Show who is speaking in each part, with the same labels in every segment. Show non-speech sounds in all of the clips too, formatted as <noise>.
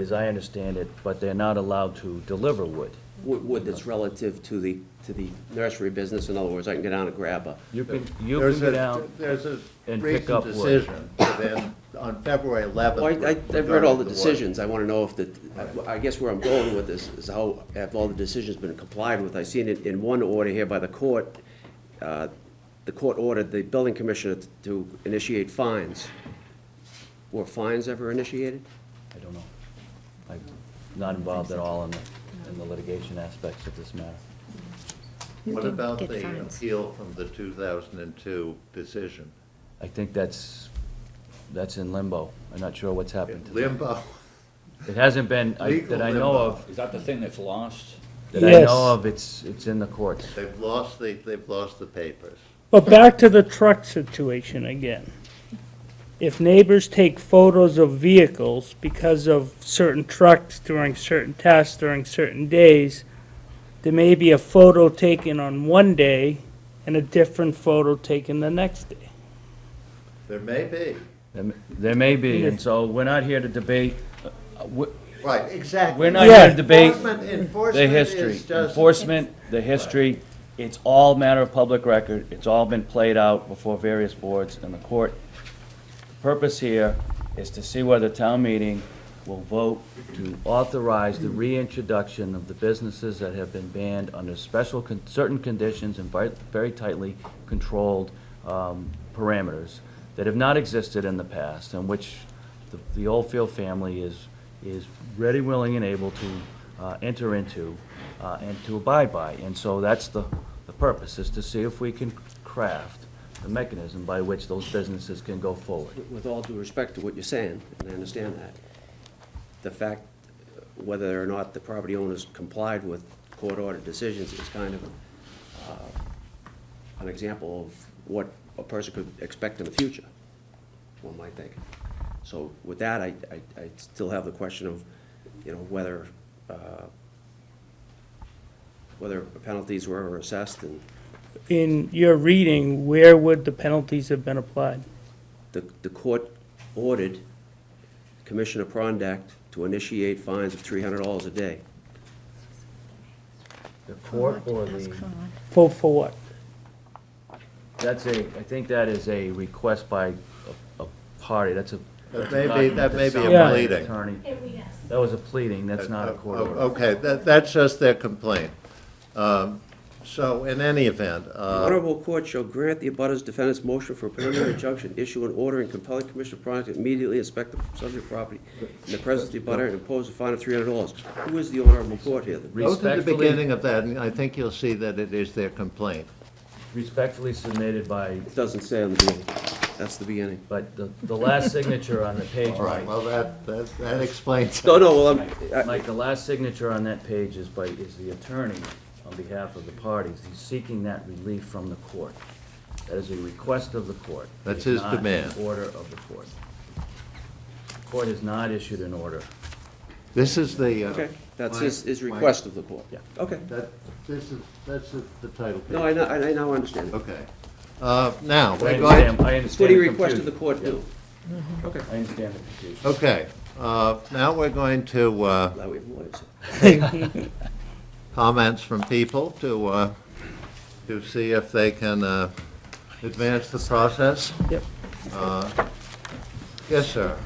Speaker 1: as I understand it, but they're not allowed to deliver wood.
Speaker 2: Wood, wood that's relative to the, to the nursery business, in other words, I can go down and grab a,
Speaker 1: You can, you
Speaker 3: There's
Speaker 1: can
Speaker 3: a-
Speaker 1: go down,
Speaker 3: There's a
Speaker 1: and pick
Speaker 3: recent
Speaker 1: up wood.
Speaker 3: decision that on February 11th.
Speaker 2: Well, I, I- I've read all the
Speaker 3: regarding wood.
Speaker 2: decisions, I wanna know if the, I guess where I'm going with this is how, have all the decisions been complied with? I seen it in one order here by the court, uh, the court ordered the building commissioner to initiate fines. Were fines ever initiated?
Speaker 1: I don't know. I'm not involved at all in the, in the litigation aspects of this matter.
Speaker 4: You
Speaker 3: What
Speaker 4: can
Speaker 3: about
Speaker 4: get
Speaker 3: the
Speaker 4: fines.
Speaker 3: appeal from the 2002 decision?
Speaker 1: I think that's, that's in limbo. I'm not sure what's happened to that.
Speaker 3: Limbo, <laughs>
Speaker 1: It hasn't been, I-
Speaker 3: Legal
Speaker 1: that I know
Speaker 3: limbo.
Speaker 1: of,
Speaker 5: Is that the thing that's lost?
Speaker 1: that I
Speaker 6: Yes.
Speaker 1: know of, it's, it's in the courts.
Speaker 3: they've lost the, they've lost the papers.
Speaker 6: But back to the truck situation again. If neighbors take photos of vehicles because of certain trucks during certain tests, during certain days, there may be a photo taken on one day and a different photo taken the next day.
Speaker 3: There may be,
Speaker 1: There m- There may be, and so we're not here to debate, uh, w-
Speaker 3: right, exactly.
Speaker 1: we're not here to
Speaker 6: Yeah.
Speaker 1: debate
Speaker 3: Enforcement-
Speaker 1: the
Speaker 3: Enforcement
Speaker 1: history.
Speaker 3: is just.
Speaker 1: Enforcement, the history, it's all matter of public record, it's all been played out before various boards and the court. Purpose here is to see whether town meeting will vote to authorize the reintroduction of the businesses that have been banned under special, con- certain conditions and vi- very tightly controlled um, parameters that have not existed in the past, and which the- the Oldfield family is, is ready, willing, and able to uh, enter into uh, and to abide by. And so that's the, the purpose, is to see if we can craft the mechanism by which those businesses can go forward.
Speaker 2: With all due respect to what you're saying, and I understand that, the fact whether or not the property owners complied with court-ordered decisions is kind of uh, an example of what a person could expect in the future, one might think. So with that, I, I, I still have the question of, you know, whether, uh, whether penalties were ever assessed and
Speaker 6: In your reading, where would the penalties have been applied?
Speaker 2: The, the court ordered Commissioner Prondak to initiate fines of three hundred dollars a day.
Speaker 1: The court
Speaker 4: Correct,
Speaker 1: or
Speaker 4: that's
Speaker 1: the,
Speaker 4: correct.
Speaker 6: For, for what?
Speaker 1: that's a, I think that is a request by a, a party, that's a.
Speaker 3: That may be- that may be a
Speaker 1: that's signed by an
Speaker 3: pleading.
Speaker 1: Attorney,
Speaker 7: Yes.
Speaker 1: that was a pleading, that's not a court
Speaker 3: Oh,
Speaker 1: order.
Speaker 3: Okay, that, that's just their complaint. Um, So in any event,
Speaker 2: The
Speaker 3: uh,
Speaker 2: Honorable court shall grant the abutters defendant's motion for a preliminary injunction, issue an order, and compel Commissioner Prondak to immediately inspect the subject property in the presence of the abutter and impose a fine of three hundred dollars. Who is the honorable court here?
Speaker 3: go to the
Speaker 1: Respectfully-
Speaker 3: beginning of that, and I think you'll see that it is their complaint.
Speaker 1: Respectfully submitted by,
Speaker 2: It doesn't say on the beginning. That's the beginning.
Speaker 1: but the, the last signature on the page,
Speaker 3: All right,
Speaker 1: Mike,
Speaker 3: well, that, that that explains.
Speaker 2: No, no, well, I'm, I-
Speaker 1: Mike, the last signature on that page is by, is the attorney on behalf of the parties. He's seeking that relief from the court. That is a request of the court. It
Speaker 3: That's
Speaker 1: is
Speaker 3: his
Speaker 1: not an
Speaker 3: demand.
Speaker 1: Order of the court. The Court has not issued an order.
Speaker 3: This is the. uh,
Speaker 2: okay, that's
Speaker 3: my-
Speaker 2: his, his
Speaker 3: my-
Speaker 2: request of the court.
Speaker 1: Yeah.
Speaker 2: Okay.
Speaker 3: That, this is, that's the- the title.
Speaker 2: No, I, know- I I now understand.
Speaker 3: Okay. Uh, Now,
Speaker 1: I
Speaker 3: we're going,
Speaker 1: understand, I
Speaker 2: It's
Speaker 1: understand
Speaker 2: what he
Speaker 1: the
Speaker 2: requested the
Speaker 1: confusion.
Speaker 2: court do. Okay.
Speaker 1: I understand the confusion.
Speaker 3: okay, uh, now we're going to uh,
Speaker 2: Now we have lawyers.
Speaker 3: comments from people to, uh, to see if they can uh, advance the process.
Speaker 6: Yep.
Speaker 3: Uh, Yes, sir.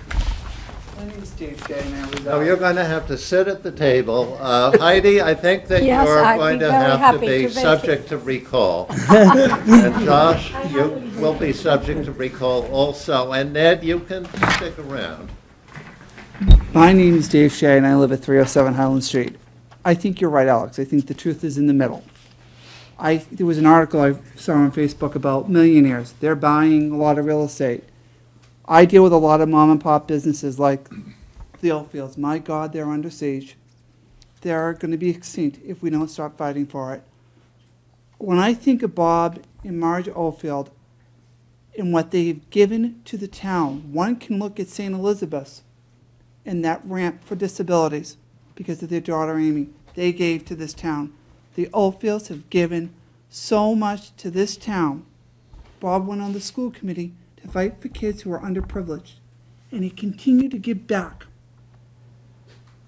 Speaker 8: My name is Dave Gay, and I
Speaker 3: Now,
Speaker 8: reside
Speaker 3: Oh, you're going to have to sit at the table. Uh, Heidi, I think that
Speaker 4: Yes,
Speaker 3: you're
Speaker 4: I'd be
Speaker 3: going to
Speaker 4: very
Speaker 3: have to
Speaker 4: happy
Speaker 3: be
Speaker 4: to vacate.
Speaker 3: subject to
Speaker 4: <laughs>
Speaker 3: recall. And Josh, you will be subject to recall also. And Ned, you can stick around.
Speaker 8: My name is Dave Shea, and I live at 307 Highland Street. I think you're right, Alex. I think the truth is in the middle. I, there was an article I saw on Facebook about millionaires. They're buying a lot of real estate. I deal with a lot of mom and pop businesses like the Oldfields. My God, they're under siege. They're going to be extinct if we don't stop fighting for it. When I think of Bob and Marge Oldfield and what they've given to the town, one can look at St. Elizabeth's and that ramp for disabilities because of their daughter Amy. They gave to this town. The Oldfields have given so much to this town. Bob went on the school committee to fight for kids who are underprivileged, and he continued to give back.